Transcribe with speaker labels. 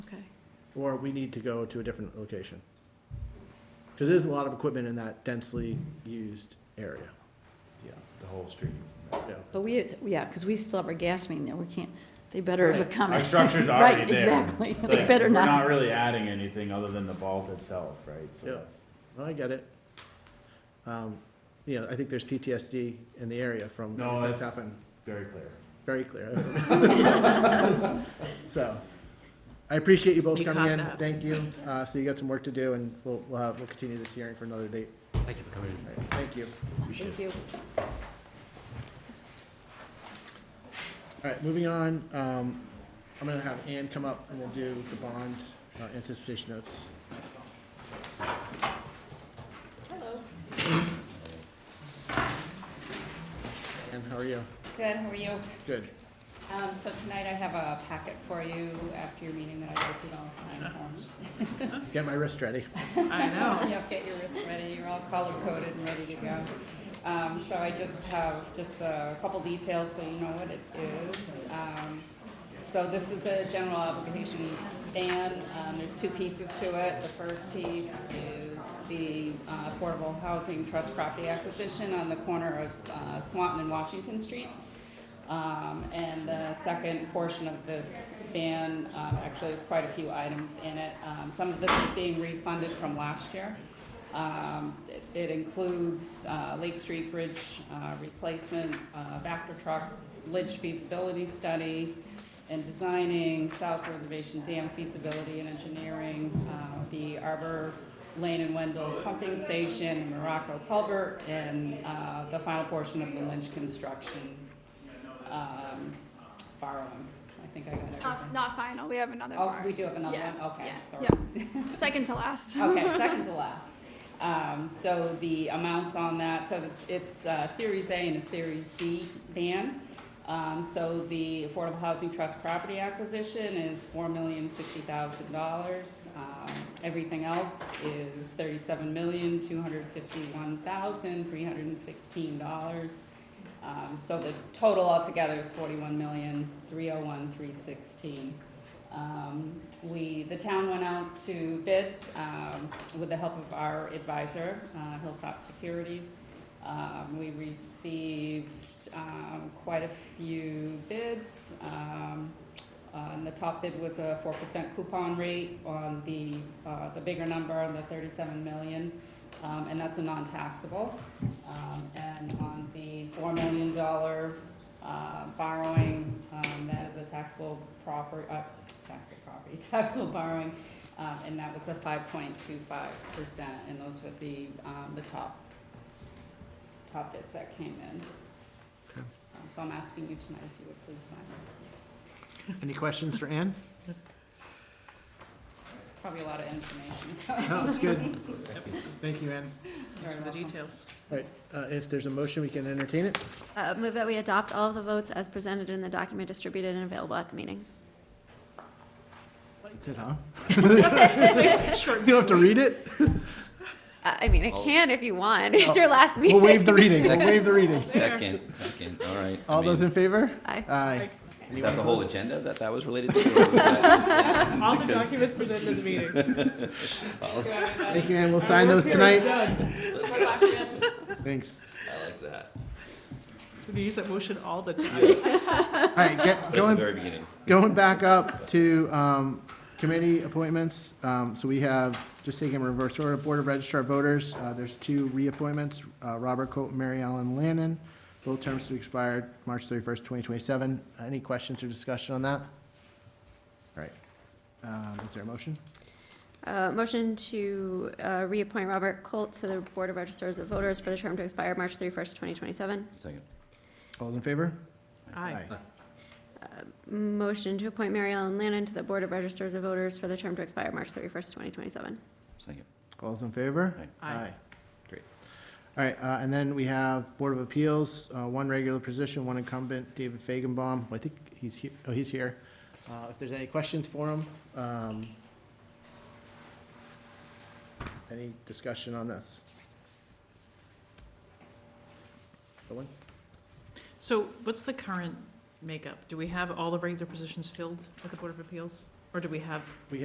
Speaker 1: or we need to go to a different location. Cause there's a lot of equipment in that densely used area,
Speaker 2: Yeah, the whole street.
Speaker 1: yeah.
Speaker 3: But we, yeah, because we still have our gas main there, we can't, they better have come.
Speaker 2: Our structure's already there.
Speaker 3: Um, Right, exactly, they
Speaker 2: Like,
Speaker 3: better
Speaker 2: We're
Speaker 3: not.
Speaker 2: not really adding anything other than the vault itself, right? So
Speaker 1: Yeah.
Speaker 2: that's,
Speaker 1: Well, I get it. Um, you know, I think there's PTSD in the area from
Speaker 2: No,
Speaker 1: everything that's
Speaker 2: that's-
Speaker 1: happened,
Speaker 2: very clear.
Speaker 1: very clear. So, I appreciate you both
Speaker 4: You
Speaker 1: coming
Speaker 4: caught
Speaker 1: in,
Speaker 4: that.
Speaker 1: thank you, uh, so you got some work to do, and we'll, we'll, have- we'll continue this hearing for another date.
Speaker 5: Thank you for coming
Speaker 1: All right, Thank you.
Speaker 3: Thank you.
Speaker 1: All right, moving on, um, I'm gonna have Ann come up and we'll do the bond uh, anticipation notes.
Speaker 6: Hello.
Speaker 1: Ann, how are you?
Speaker 6: Good, how are you?
Speaker 1: Good.
Speaker 6: Um, so tonight I have a packet for you after your meeting that I hope you all sign home.
Speaker 1: Get my wrist ready.
Speaker 4: I know.
Speaker 6: You know, get your wrist ready, you're all color coded and ready to go. Um, so I just have just a couple details so you know what it is. Um, so this is a general application ban, um, there's two pieces to it. The first piece is the uh, Affordable Housing Trust property acquisition on the corner of uh, Swanton and Washington Street. Um, and the second portion of this ban, um, actually, there's quite a few items in it. Um, some of this is being refunded from last year. Um, it- it includes, uh, Lake Street Bridge, uh, replacement, uh, Vector truck, ledge feasibility study, and designing, South Reservation Dam feasibility and engineering, uh, the Arbor Lane and Wendell pumping station, Morocco culvert, and, uh, the final portion of the Lynch construction um, borrowing. I think I got
Speaker 7: Not,
Speaker 6: everything.
Speaker 7: not final, we have another
Speaker 6: Oh,
Speaker 7: bar.
Speaker 6: we do have another
Speaker 7: Yeah,
Speaker 6: one? Okay,
Speaker 7: yeah,
Speaker 6: sorry.
Speaker 7: yeah. Second to last.
Speaker 6: Okay, second to last. Um, so the amounts on that, so it's, it's, uh, Series A and a Series B ban. Um, so the Affordable Housing Trust property acquisition is four million fifty thousand dollars. Um, everything else is thirty-seven million two hundred fifty-one thousand three hundred and sixteen dollars. Um, so the total altogether is forty-one million, three oh one, three sixteen. Um, we, the town went out to bid, um, with the help of our advisor, uh, Hilltop Securities. Um, we received, um, quite a few bids, um, uh, and the top bid was a four percent coupon rate on the, uh, the bigger number on the thirty-seven million, um, and that's a non-taxable. Um, and on the four million dollar, uh, borrowing, um, that is a taxable property, uh, taxable property, taxable borrowing, um, and that was a five point two five percent, and those would be, um, the top, top bids that came in. Um, So I'm asking you tonight if you would please sign.
Speaker 1: Any questions for Ann?
Speaker 6: It's probably a lot of information, so
Speaker 1: No, it's good. Thank you, Ann.
Speaker 4: Thanks for
Speaker 6: you're
Speaker 4: Oh, the
Speaker 6: welcome.
Speaker 4: details.
Speaker 1: All right, uh, if there's a motion, we can entertain it.
Speaker 8: Uh, Move that we adopt all of the votes as presented in the document distributed and available at the meeting.
Speaker 1: That's it, huh?
Speaker 4: Short and
Speaker 1: You don't have to read it?
Speaker 8: Uh, I mean, I can if you want. It's your last meeting.
Speaker 1: Oh. We'll waive the reading, we'll waive the reading.
Speaker 5: Second, second, all right. I
Speaker 1: All those
Speaker 5: mean,
Speaker 1: in favor?
Speaker 8: Aye.
Speaker 1: Aye.
Speaker 5: Is that the whole agenda that that was related to? or was that-
Speaker 4: All the
Speaker 5: Because-
Speaker 4: documents presented in the meeting.
Speaker 1: Thank you, Ann, we'll sign those tonight.
Speaker 4: Done.
Speaker 1: Thanks.
Speaker 5: I like that.
Speaker 4: We use that motion all the time.
Speaker 1: All right, get,
Speaker 5: But at the
Speaker 1: going,
Speaker 5: very beginning.
Speaker 1: going back up to, um, committee appointments. Um, so we have, just taking them in reverse order, Board of Registrar Voters, uh, there's two reappointments, uh, Robert Coat and Mary Ellen Lannon. Both terms to expire March thirty-first, twenty twenty-seven. Any questions or discussion on that? All right, um, is there a motion?
Speaker 8: Uh, Motion to uh, reappoint Robert Colt to the Board of Registers of Voters for the term to expire March 31st, 2027.
Speaker 5: Second.
Speaker 1: All those in favor?
Speaker 4: Aye.
Speaker 8: Motion to appoint Mary Ellen Lannon to the Board of Registers of Voters for the term to expire March 31st, 2027.
Speaker 5: Second.
Speaker 1: All those in favor?
Speaker 4: Aye. Aye.
Speaker 1: Great. All right, uh, and then we have Board of Appeals, uh, one regular position, one incumbent, David Fagenbaum. I think he's here, oh, he's here. Uh, If there's any questions for him, um, any discussion on this? Owen?
Speaker 4: So what's the current makeup? Do we have all the regular positions filled at the Board of Appeals? Or do we have